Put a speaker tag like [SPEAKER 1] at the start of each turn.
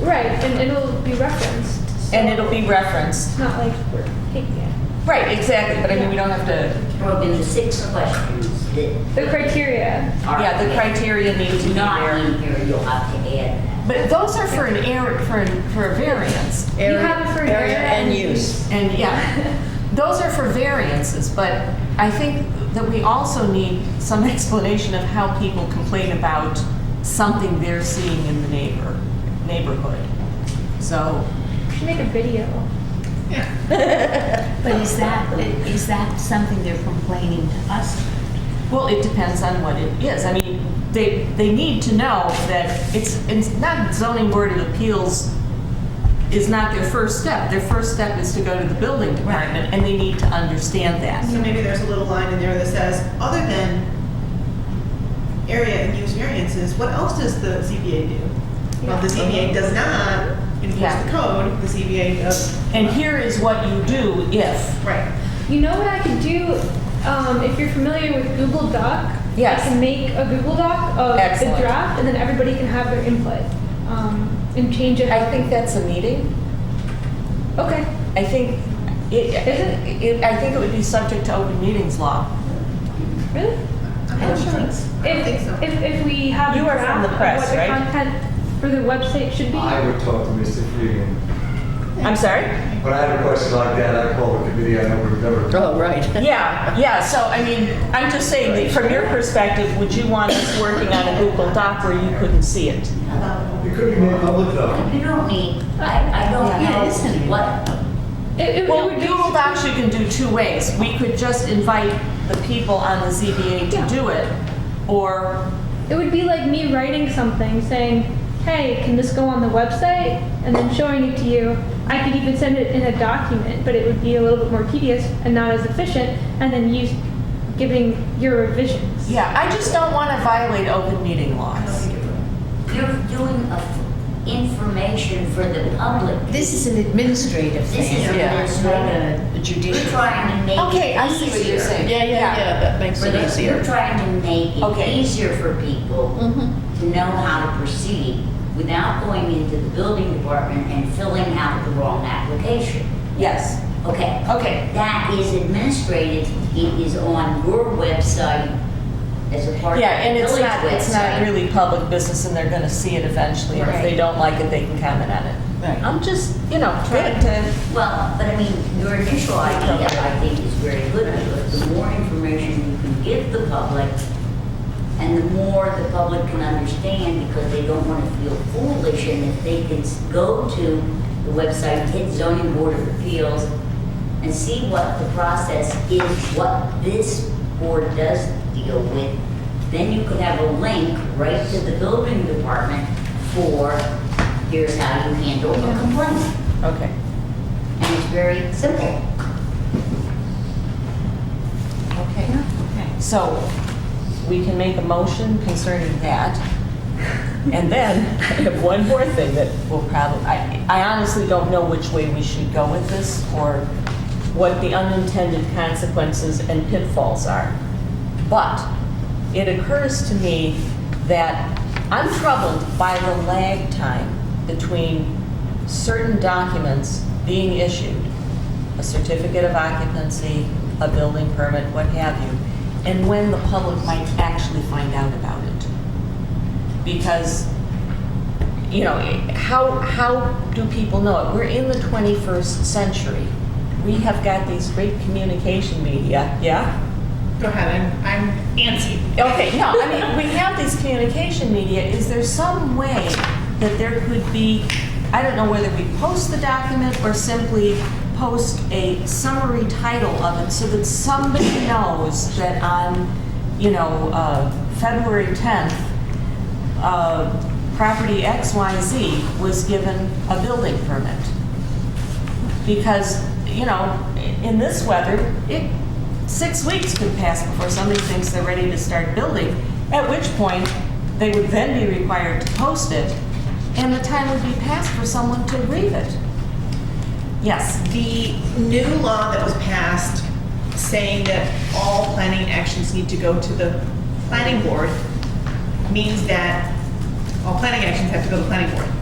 [SPEAKER 1] Right, and it'll be referenced. so
[SPEAKER 2] And it'll be referenced.
[SPEAKER 1] It's not like we're taking it.
[SPEAKER 2] Right, exactly, but I mean, we don't have to,
[SPEAKER 3] Well, then the six questions that
[SPEAKER 1] The criteria,
[SPEAKER 3] are.
[SPEAKER 2] yeah, the criteria need to be
[SPEAKER 3] Not
[SPEAKER 2] there.
[SPEAKER 3] in here, you'll have to add
[SPEAKER 2] But those are for an air, for, an- for a variance.
[SPEAKER 1] You have it for area and use.
[SPEAKER 2] And yeah, those are for variances, but I think that we also need some explanation of how people complain about something they're seeing in the neighbor, neighborhood. So,
[SPEAKER 1] we should make a video.
[SPEAKER 4] But is that, is that something they're complaining to us?
[SPEAKER 2] well, it depends on what it is. I mean, they, they need to know that it's, it's not zoning board of appeals is not their first step. Their first step is to go to the building department, and they need to understand that.
[SPEAKER 5] So maybe there's a little line in there that says, other than area and use variances, what else does the ZBA do? Well, the ZBA does not enforce
[SPEAKER 2] Yeah.
[SPEAKER 5] the code, the ZBA does.
[SPEAKER 2] And here is what you do if.
[SPEAKER 5] Right.
[SPEAKER 1] You know what I could do, um, if you're familiar with Google Doc?
[SPEAKER 2] Yes.
[SPEAKER 1] I can make a Google Doc of
[SPEAKER 2] Excellent.
[SPEAKER 1] the draft, and then everybody can have their input, um, and change it.
[SPEAKER 2] I think that's a meeting.
[SPEAKER 1] Okay,
[SPEAKER 2] I think, it, it, it- I think it would be subject to open meetings law.
[SPEAKER 1] really?
[SPEAKER 5] I'm not sure. I don't think
[SPEAKER 1] If,
[SPEAKER 5] so.
[SPEAKER 1] if, if we have a
[SPEAKER 2] You are
[SPEAKER 1] draft
[SPEAKER 2] from the
[SPEAKER 1] of
[SPEAKER 2] press,
[SPEAKER 1] what the
[SPEAKER 2] right?
[SPEAKER 1] content for the website should be.
[SPEAKER 6] I would talk to Mr. Freeman.
[SPEAKER 2] I'm sorry?
[SPEAKER 6] When I have a question like that, I call the committee, I don't remember.
[SPEAKER 4] Oh, right.
[SPEAKER 2] Yeah, yeah, so I mean, I'm just saying, that from your perspective, would you want us working on a Google Doc where you couldn't see it?
[SPEAKER 3] that.
[SPEAKER 6] It could be made public though.
[SPEAKER 3] You don't need, I, I
[SPEAKER 2] Oh,
[SPEAKER 3] don't
[SPEAKER 4] Yeah, that isn't-
[SPEAKER 3] know what,
[SPEAKER 1] It, it- it
[SPEAKER 2] Well,
[SPEAKER 1] would be-
[SPEAKER 2] Google Docs you can do two ways. We could just invite the people on the ZBA
[SPEAKER 1] Yeah.
[SPEAKER 2] to do it, or,
[SPEAKER 1] It would be like me writing something saying, hey, can this go on the website? And then showing it to you. I could even send it in a document, but it would be a little bit more tedious and not as efficient, and then you giving your revisions.
[SPEAKER 2] yeah, I just don't want to violate open meeting
[SPEAKER 5] I don't
[SPEAKER 2] laws.
[SPEAKER 5] think it would.
[SPEAKER 3] you're doing a f- information for the public.
[SPEAKER 4] This is an administrative
[SPEAKER 3] This
[SPEAKER 4] thing.
[SPEAKER 3] is an
[SPEAKER 4] yeah, it's not
[SPEAKER 3] administrative.
[SPEAKER 4] a
[SPEAKER 3] You're
[SPEAKER 4] judicial.
[SPEAKER 3] trying to make it easier.
[SPEAKER 2] Okay, I see what you're saying.
[SPEAKER 7] Yeah, yeah, yeah, that makes
[SPEAKER 3] For
[SPEAKER 7] it
[SPEAKER 3] the, you're
[SPEAKER 7] easier.
[SPEAKER 3] trying to make
[SPEAKER 2] Okay. Mm-hmm.
[SPEAKER 3] it easier for people to know how to proceed without going into the building department and filling out the wrong application.
[SPEAKER 2] Yes,
[SPEAKER 3] Okay,
[SPEAKER 2] okay.
[SPEAKER 3] that is administrated, it is on your website as a part of the village website.
[SPEAKER 2] Yeah, and it's not, it's not really public business, and they're gonna see it eventually, and if they
[SPEAKER 3] Right.
[SPEAKER 2] don't like it, they can comment on it.
[SPEAKER 7] Right.
[SPEAKER 2] I'm just, you know, trying to,
[SPEAKER 3] Well, but I mean, your initial idea, I think, is very good, because the more information you can give the public, and the more the public can understand, because they don't want to feel foolish, and if they can s- go to the website, hit zoning board of appeals, and see what the process is, what this board does deal with, then you could have a link right to the building department for, here's how you handle a complaint.
[SPEAKER 2] okay.
[SPEAKER 3] And it's very simple.
[SPEAKER 2] Okay. So, we can make a motion concerning that. And then, I have one more thing that will probably, I I honestly don't know which way we should go with this, or what the unintended consequences and pitfalls are. But it occurs to me that I'm troubled by the lag time between certain documents being issued, a certificate of occupancy, a building permit, what have you, and when the public might actually find out about it. Because, you know, how, how do people know it? We're in the 21st century. We have got these great communication media, yeah?
[SPEAKER 5] Go ahead, I'm, I'm antsy.
[SPEAKER 2] Okay, no, I mean, we have these communication media, is there some way that there could be, I don't know whether we post the document or simply post a summary title of it so that somebody knows that on, you know, uh, February 10th, uh, property XYZ was given a building permit? Because, you know, in this weather, it, six weeks could pass before somebody thinks they're ready to start building, at which point they would then be required to post it, and the time would be passed for someone to read it. Yes,
[SPEAKER 5] The new law that was passed saying that all planning actions need to go to the planning board means that all planning actions have to go to the planning board.